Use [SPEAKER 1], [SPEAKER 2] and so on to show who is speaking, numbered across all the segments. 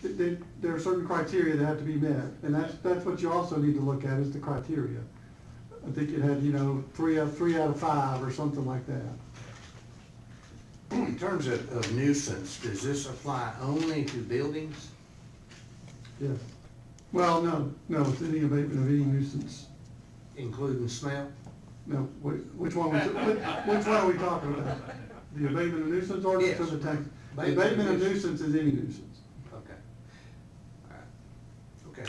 [SPEAKER 1] th- th- there are certain criteria that have to be met, and that's, that's what you also need to look at, is the criteria. I think it had, you know, three out, three out of five or something like that.
[SPEAKER 2] In terms of of nuisance, does this apply only to buildings?
[SPEAKER 1] Yes. Well, no, no, it's any abatement of any nuisance.
[SPEAKER 2] Including smell?
[SPEAKER 1] No, which, which one, was it? which which one are we talking about? The abatement of nuisance ordinance or the
[SPEAKER 2] Yes.
[SPEAKER 1] tax? The
[SPEAKER 2] Abatement of
[SPEAKER 1] Abatement of
[SPEAKER 2] nuisance.
[SPEAKER 1] nuisance is any nuisance.
[SPEAKER 2] Okay. All right. Okay.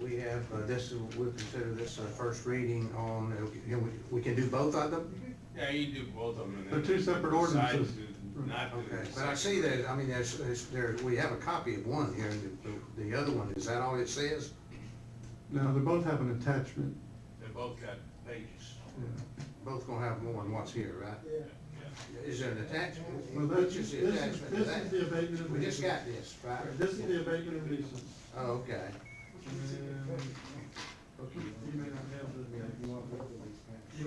[SPEAKER 2] We have, uh, this, is- we'll consider this a first reading on, uh, you know, we- we can do both of them?
[SPEAKER 3] Yeah, you do both of them. and
[SPEAKER 1] They're
[SPEAKER 3] then
[SPEAKER 1] two separate
[SPEAKER 3] decide
[SPEAKER 1] ordinances.
[SPEAKER 3] to Not do.
[SPEAKER 2] Okay,
[SPEAKER 3] the
[SPEAKER 2] but I
[SPEAKER 3] second.
[SPEAKER 2] see that, I mean, there's, there's- there, we have a copy of one here, and the- the other one, is that all it says?
[SPEAKER 1] No, they both have an attachment.
[SPEAKER 3] They both got pages.
[SPEAKER 1] Yeah.
[SPEAKER 2] Both gonna have more than what's here, right?
[SPEAKER 3] Yeah.
[SPEAKER 2] Is there an attachment?
[SPEAKER 1] Well, that's,
[SPEAKER 2] Which is
[SPEAKER 1] this
[SPEAKER 2] the
[SPEAKER 1] is,
[SPEAKER 2] attachment to
[SPEAKER 1] this is
[SPEAKER 2] that?
[SPEAKER 1] the abatement of
[SPEAKER 2] We just
[SPEAKER 1] nuisance.
[SPEAKER 2] got this, right?
[SPEAKER 1] This is the abatement of nuisance.
[SPEAKER 2] Oh, okay.
[SPEAKER 1] And- You may not have the, you don't have the,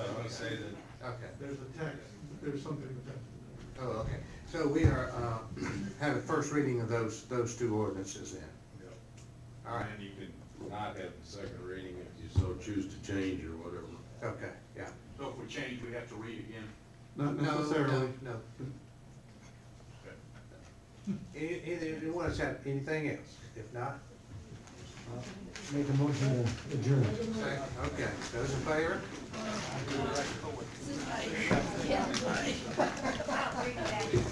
[SPEAKER 3] I was gonna say that,
[SPEAKER 2] Okay.
[SPEAKER 1] there's a tax, there's something attached.
[SPEAKER 2] Oh, okay. So we are, uh, have a first reading of those, those two ordinances then. All right,
[SPEAKER 3] and you can not have the second reading if you so choose to change or whatever.
[SPEAKER 2] okay, yeah.
[SPEAKER 3] So if we change, we have to read again?
[SPEAKER 1] Not
[SPEAKER 2] No, no,
[SPEAKER 1] necessarily.
[SPEAKER 2] No. Any, any, anyone else have anything else? If not,
[SPEAKER 4] Make a motion to adjourn.
[SPEAKER 2] say, okay, those in favor?
[SPEAKER 5] Yeah.